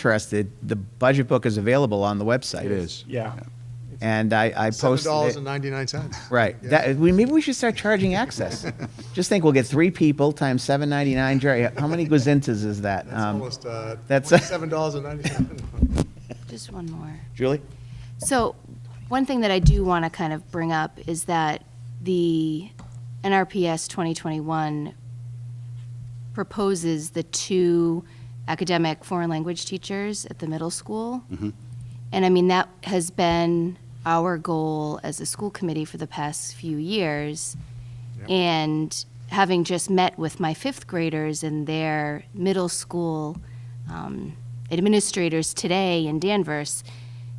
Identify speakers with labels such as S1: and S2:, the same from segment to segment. S1: interested, the budget book is available on the website.
S2: It is.
S3: Yeah.
S1: And I, I
S4: Seven
S1: posted
S4: dollars and
S1: it.
S4: ninety-nine cents.
S1: Right. That, we, maybe we should start charging access. Just think, we'll get three people times seven ninety-nine. Jerry, how many gazintas is that?
S4: That's
S1: Um,
S4: almost, uh,
S1: that's-
S4: seven dollars and ninety-seven.
S5: Just one more.
S1: Julie?
S5: So, one thing that I do want to kind of bring up is that the NRPS 2021 proposes the two academic foreign language teachers at the middle school. And I mean, that has been our goal as a school committee for the past few years. And having just met with my fifth graders and their middle school um, administrators today in Danvers,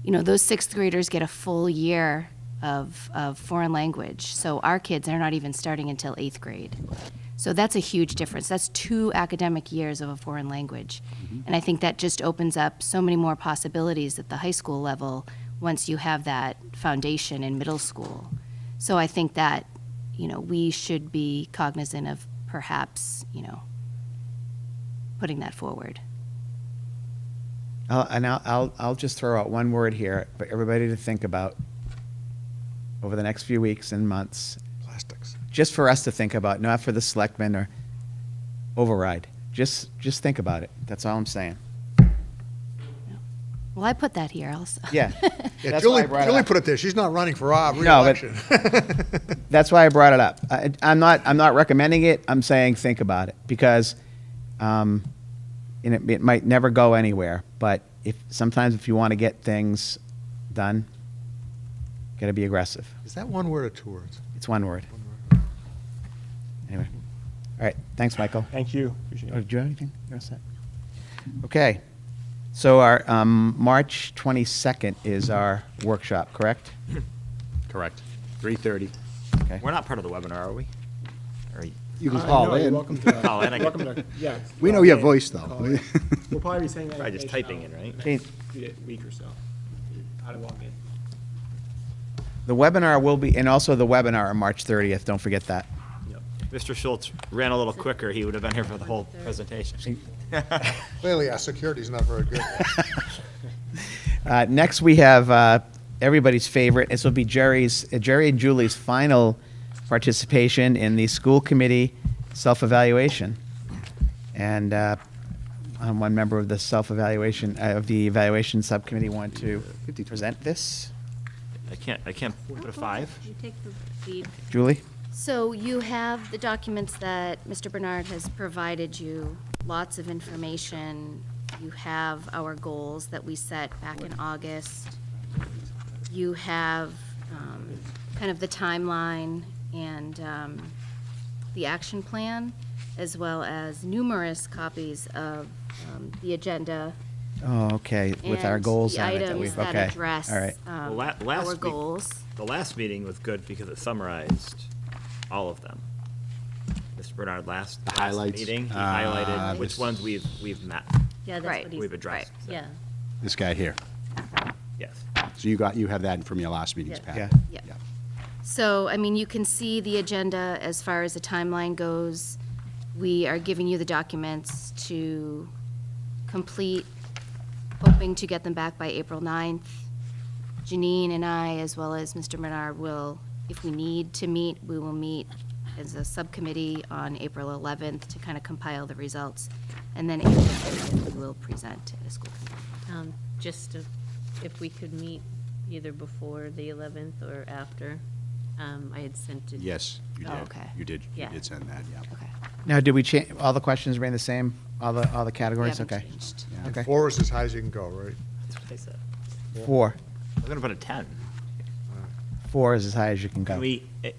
S5: you know, those sixth graders get a full year of, of foreign language. So our kids are not even starting until eighth grade. So that's a huge difference. That's two academic years of a foreign language.
S6: Mm-hmm.
S5: And I think that just opens up so many more possibilities at the high school level once you have that foundation in middle school. So I think that, you know, we should be cognizant of perhaps, you know, putting that forward.
S1: I'll, and I'll, I'll, I'll just throw out one word here for everybody to think about over the next few weeks and months,
S4: Plastics.
S1: just for us to think about, not for the selectmen or override. Just, just think about it. That's all I'm saying.
S5: Well, I put that here also.
S1: Yeah.
S4: Yeah,
S1: That's why I
S4: Julie,
S1: brought it
S4: Julie
S1: up.
S4: put it there. She's not running for our
S1: No, but-
S4: reelection.
S1: That's why I brought it up. I, I'm not. I'm not recommending it. I'm saying think about it because, um, and it, it might never go anywhere. But if sometimes if you want to get things done, gotta be aggressive.
S4: Is that one word or two words?
S1: It's one word. Anyway, all right. Thanks, Michael.
S3: Thank you. Appreciate
S1: Oh,
S3: it.
S1: do you have anything? You're all set. Okay. So our um, March 22nd is our workshop, correct?
S2: Correct. 3:30.
S1: Okay.
S6: We're not part of the webinar, are we? Are you-
S2: You can
S3: Uh,
S2: call
S3: no, you're
S2: in.
S3: Welcome to.
S6: Call in, I
S3: welcome to- Yeah.
S2: We know
S3: call
S2: your
S3: in,
S2: voice, though.
S3: call in. We'll probably be saying that.
S6: Probably just
S3: information
S6: typing
S3: out
S6: in, right?
S3: in the next Week or so. How to log in.
S1: The webinar will be, and also the webinar on March 30th. Don't forget that.
S6: Mr. Schultz ran a little quicker, he would have been here for the whole presentation.
S4: Clearly, our security's not very good.
S1: Uh, next, we have uh, everybody's favorite. This will be Jerry's, uh, Jerry and Julie's final participation in the school committee self-evaluation. And uh, I'm one member of the self-evaluation uh, of the evaluation subcommittee. Want to present this,
S6: I can't, I can't put a five?
S5: You take the lead.
S1: Julie?
S5: So you have the documents that Mr. Bernard has provided you, lots of information. You have our goals that we set back in August. You have um, kind of the timeline and um, the action plan, as well as numerous copies of um, the agenda.
S1: Oh, okay. With our
S5: and
S1: goals
S5: the
S1: on it, that
S5: items
S1: we've
S5: that
S1: okay.
S5: address,
S1: All right.
S5: um,
S6: Well, la- last
S5: Our
S6: week-
S5: goals.
S6: The last meeting was good because it summarized all of them. Mr. Bernard, last, last
S2: highlights.
S6: meeting, he
S2: Ah,
S6: highlighted
S2: this-
S6: which ones we've, we've met,
S5: Yeah, that's what he's.
S6: we've addressed. so,
S5: Yeah,
S2: This guy here.
S6: Yes.
S2: So you got, you have that from your last meeting's
S5: Yeah.
S2: packet.
S1: Yeah.
S5: yeah. So, I mean, you can see the agenda as far as the timeline goes. We are giving you the documents to complete, hoping to get them back by April 9th. Janine and I, as well as Mr. Menard, will, if we need to meet, we will meet as a subcommittee on April 11th to kind of compile the results. And then April 30th, we will present at a school committee.
S7: Um, Just to- if we could meet either before the 11th or after. Um, I had sent it.
S2: Yes, you
S5: Oh,
S2: did.
S5: okay.
S2: You did, you
S7: Yeah.
S2: did send that, yeah.
S5: Okay.
S1: Now, did we change all the questions? Remain the same. All the all the
S5: We
S1: categories.
S5: haven't
S1: Okay.
S5: changed.
S1: Okay.
S4: Four is as high as you can go, right?
S6: That's what I said.
S1: Four.
S6: I'm gonna put a ten.
S1: Four is as high as you can go.
S6: Can we, a,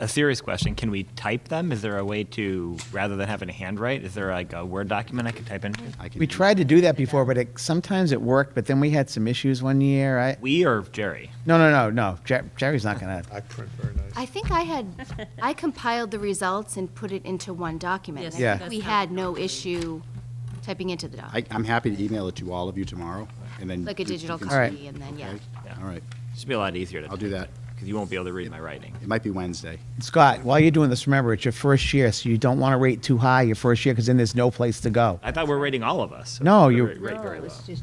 S6: a serious question, can we type them? Is there a way to, rather than having to handwrite, is there like a Word document I can type into?
S2: I can
S1: We
S2: do-
S1: tried to do that before, but it, sometimes it worked. But then we had some issues one year. I
S6: We or Jerry?
S1: no no no no. Jer- Jerry's not gonna.
S4: I print very nice.
S5: I think I had, I compiled the results and put it into one document.
S7: Yes,
S5: and I think
S1: Yeah.
S5: We
S7: that's how
S5: had
S7: it
S5: no
S7: normally-
S5: issue typing into the
S2: I,
S5: document,
S2: I'm happy to email it to all of you tomorrow, and then.
S5: like a
S2: you- you
S5: digital
S2: can-
S1: All right.
S5: copy, and then, yeah.
S2: Okay, All right,
S6: Should be a lot easier to.
S2: I'll do
S6: type.
S2: that.
S6: because you won't be able to read my writing.
S2: It might be Wednesday.
S1: Scott, while you're doing this, remember, it's your first year, so you don't want to rate too high your first year, because then there's no place to go.
S6: I thought we are rating all of us. so
S1: No,
S6: we're
S1: you-
S6: ra- rate very
S7: No, it was
S6: low.
S7: just